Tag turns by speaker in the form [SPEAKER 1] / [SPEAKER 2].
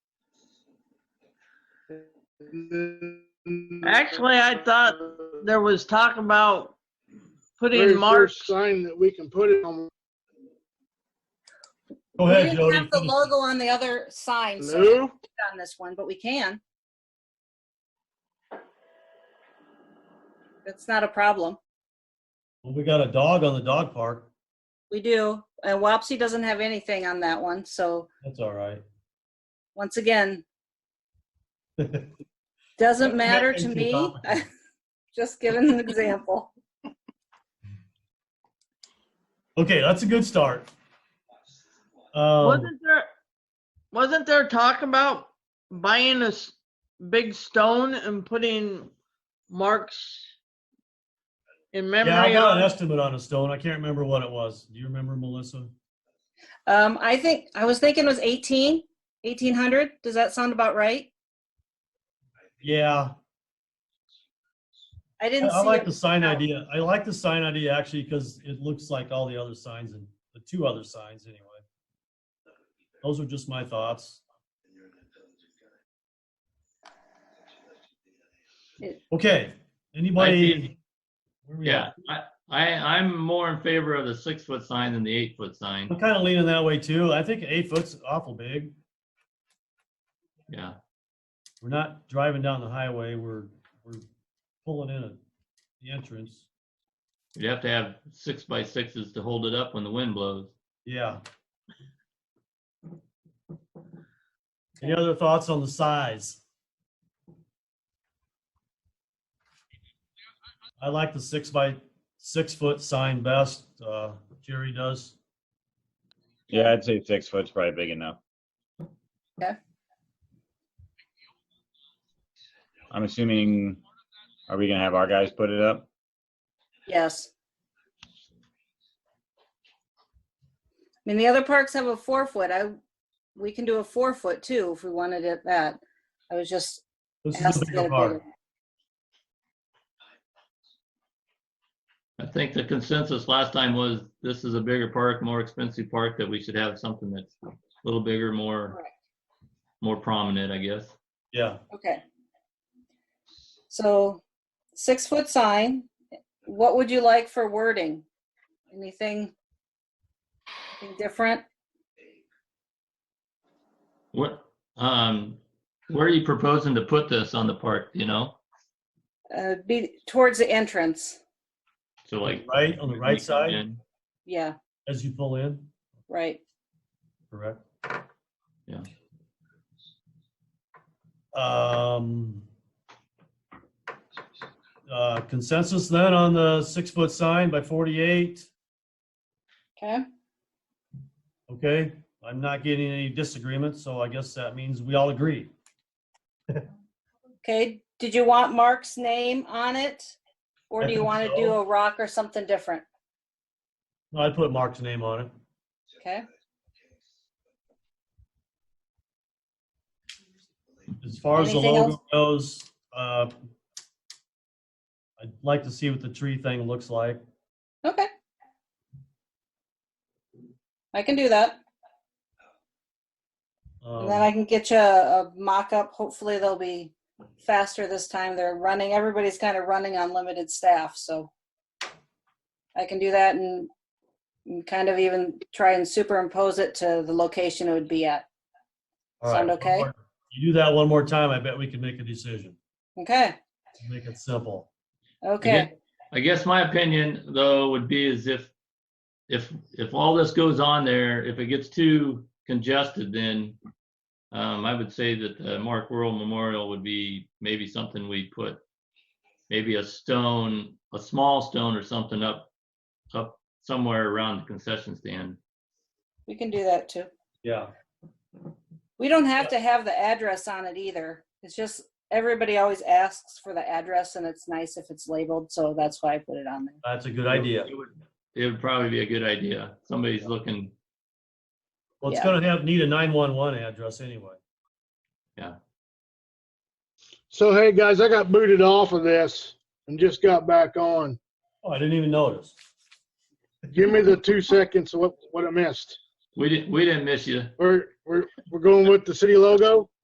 [SPEAKER 1] Actually, I thought there was talk about
[SPEAKER 2] Very
[SPEAKER 1] putting
[SPEAKER 2] first
[SPEAKER 1] marks.
[SPEAKER 2] Sign that we can put it on.
[SPEAKER 3] Go
[SPEAKER 4] We
[SPEAKER 3] ahead,
[SPEAKER 4] didn't
[SPEAKER 3] Jody.
[SPEAKER 4] have the logo on the other sign, so we can't
[SPEAKER 2] No,
[SPEAKER 4] on this one, but we can. That's not a problem.
[SPEAKER 3] Well, We got a dog on the dog park.
[SPEAKER 4] We do. And Wapsie doesn't have anything on that one, so
[SPEAKER 3] That's all right.
[SPEAKER 4] once again, doesn't matter to
[SPEAKER 3] Nothing
[SPEAKER 4] me.
[SPEAKER 3] complicated.
[SPEAKER 4] Just giving an example.
[SPEAKER 3] Okay, that's a good start. Um,
[SPEAKER 1] Wasn't there, wasn't there talk about buying a s- big stone and putting marks in
[SPEAKER 3] yeah, I
[SPEAKER 1] memory
[SPEAKER 3] got an
[SPEAKER 1] of?
[SPEAKER 3] estimate on a stone. I can't remember what it was. Do you remember, Melissa?
[SPEAKER 4] Um, I think, I was thinking it was 18, 1800. Does that sound about right?
[SPEAKER 3] Yeah,
[SPEAKER 4] I
[SPEAKER 3] I,
[SPEAKER 4] didn't
[SPEAKER 3] I
[SPEAKER 4] see
[SPEAKER 3] like
[SPEAKER 4] it.
[SPEAKER 3] the sign
[SPEAKER 4] No.
[SPEAKER 3] idea. I like the sign idea actually because it looks like all the other signs and the two other signs anyway. Those are just my thoughts. Okay, anybody? where we
[SPEAKER 5] Yeah,
[SPEAKER 3] at?
[SPEAKER 5] I, I, I'm more in favor of the six foot sign than the eight foot sign.
[SPEAKER 3] I'm kind of leaning that way too. I think eight foot's awful big.
[SPEAKER 5] Yeah,
[SPEAKER 3] We're not driving down the highway. We're, we're pulling in at the entrance.
[SPEAKER 5] you'd have to have six by sixes to hold it up when the wind blows.
[SPEAKER 3] Yeah. Any other thoughts on the size? I like the six by six foot sign best. Uh, Jerry does.
[SPEAKER 6] Yeah, I'd say six foot's probably big enough.
[SPEAKER 4] Okay.
[SPEAKER 6] I'm assuming, are we gonna have our guys put it up?
[SPEAKER 4] Yes. I mean, the other parks have a four foot. I, we can do a four foot too if we wanted it that. I was just
[SPEAKER 3] This is
[SPEAKER 4] asked
[SPEAKER 3] a
[SPEAKER 4] to get
[SPEAKER 3] bigger
[SPEAKER 4] a
[SPEAKER 3] part.
[SPEAKER 4] bigger.
[SPEAKER 5] I think the consensus last time was this is a bigger park, more expensive park, that we should have something that's a little bigger, more,
[SPEAKER 4] Correct.
[SPEAKER 5] more prominent, I guess.
[SPEAKER 3] Yeah.
[SPEAKER 4] Okay. So six foot sign. What would you like for wording? Anything? anything Different?
[SPEAKER 5] What, um, where are you proposing to put this on the park, do you know?
[SPEAKER 4] Uh, be towards the entrance.
[SPEAKER 5] So like.
[SPEAKER 3] Right, on the right side
[SPEAKER 4] Yeah,
[SPEAKER 3] as you pull in,
[SPEAKER 4] right.
[SPEAKER 3] correct?
[SPEAKER 5] Yeah.
[SPEAKER 3] Um, uh, consensus then on the six foot sign by 48.
[SPEAKER 4] Okay.
[SPEAKER 3] Okay, I'm not getting any disagreement, so I guess that means we all agree.
[SPEAKER 4] Okay. Did you want Mark's name on it? Or
[SPEAKER 3] I
[SPEAKER 4] do you
[SPEAKER 3] think
[SPEAKER 4] want to
[SPEAKER 3] so.
[SPEAKER 4] do a rock or something different?
[SPEAKER 3] I put Mark's name on it.
[SPEAKER 4] Okay.
[SPEAKER 3] As far as the
[SPEAKER 4] Anything
[SPEAKER 3] logo
[SPEAKER 4] else?
[SPEAKER 3] goes, uh, I'd like to see what the tree thing looks like.
[SPEAKER 4] Okay. I can do that. And then
[SPEAKER 3] Um,
[SPEAKER 4] I can get you a, a mock up. Hopefully they'll be faster this time. They're running, everybody's kind of running on limited staff, so I can do that and, and kind of even try and superimpose it to the location it would be at.
[SPEAKER 3] all right,
[SPEAKER 4] sound
[SPEAKER 3] one
[SPEAKER 4] okay?
[SPEAKER 3] more- You do that one more time, I bet we can make a decision.
[SPEAKER 4] Okay.
[SPEAKER 3] Make it simple. Mm-hmm.
[SPEAKER 4] Okay.
[SPEAKER 5] I guess my opinion though would be is if, if, if all this goes on there, if it gets too congested, then um, I would say that the Mark World Memorial would be maybe something we put, maybe a stone, a small stone or something up, up somewhere around the concession stand.
[SPEAKER 4] We can do that too.
[SPEAKER 3] Yeah.
[SPEAKER 4] We don't have to have the address on it either. It's just everybody always asks for the address and it's nice if it's labeled, so that's why I put it on there.
[SPEAKER 3] That's a good idea.
[SPEAKER 5] It would, it would probably be a good idea. Somebody's looking,
[SPEAKER 3] Well, it's
[SPEAKER 4] Yeah.
[SPEAKER 3] gonna have, need a 911 address anyway.
[SPEAKER 2] So hey, guys, I got booted off of this and just got back on.
[SPEAKER 3] Oh, I didn't even notice.
[SPEAKER 2] Give me the two seconds of what, what I missed.
[SPEAKER 5] we didn't, we didn't miss you.
[SPEAKER 2] We're, we're, we're going with the city logo?